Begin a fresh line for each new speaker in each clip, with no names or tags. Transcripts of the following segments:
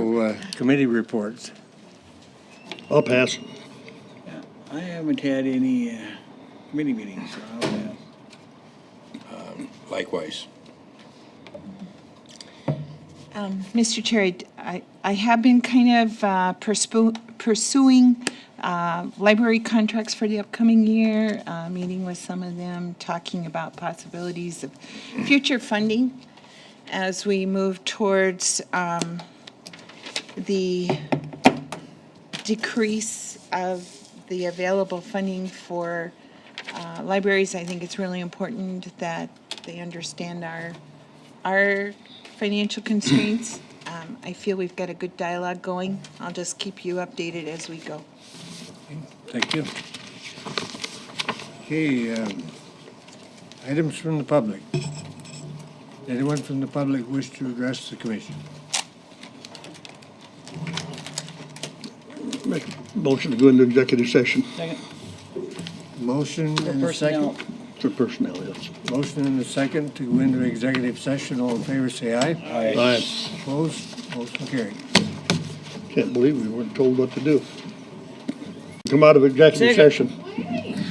to uh, committee reports.
I'll pass.
I haven't had any uh, committee meetings, so I'll pass.
Likewise.
Mr. Chair, I, I have been kind of uh, pursue- pursuing uh, library contracts for the upcoming year, uh, meeting with some of them, talking about possibilities of future funding as we move towards um, the decrease of the available funding for uh, libraries. I think it's really important that they understand our, our financial constraints. Um, I feel we've got a good dialogue going. I'll just keep you updated as we go.
Thank you. Okay, um, items from the public. Anyone from the public wish to address the commission?
Make a motion to go into executive session
Second,
Motion
for
and a
personnel.
second.
for personnel, yes.
Motion and a second to go into executive session. All in favor, say aye.
I
Opposed? Motion carried.
can't believe we weren't told what to do. Come out of executive
Second.
session.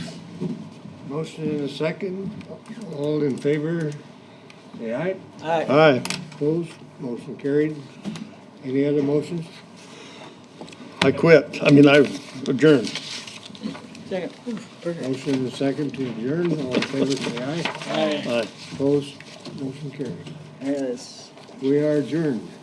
Motion and a second. All in favor, say aye.
Aye.
Aye.
Opposed? Motion carried. Any other motions?
I quit. I mean, I adjourned.
Second.
Motion and a second to adjourn. All in favor, say aye.
Aye.
Aye.
Opposed? Motion carried.
Yes.
We are adjourned.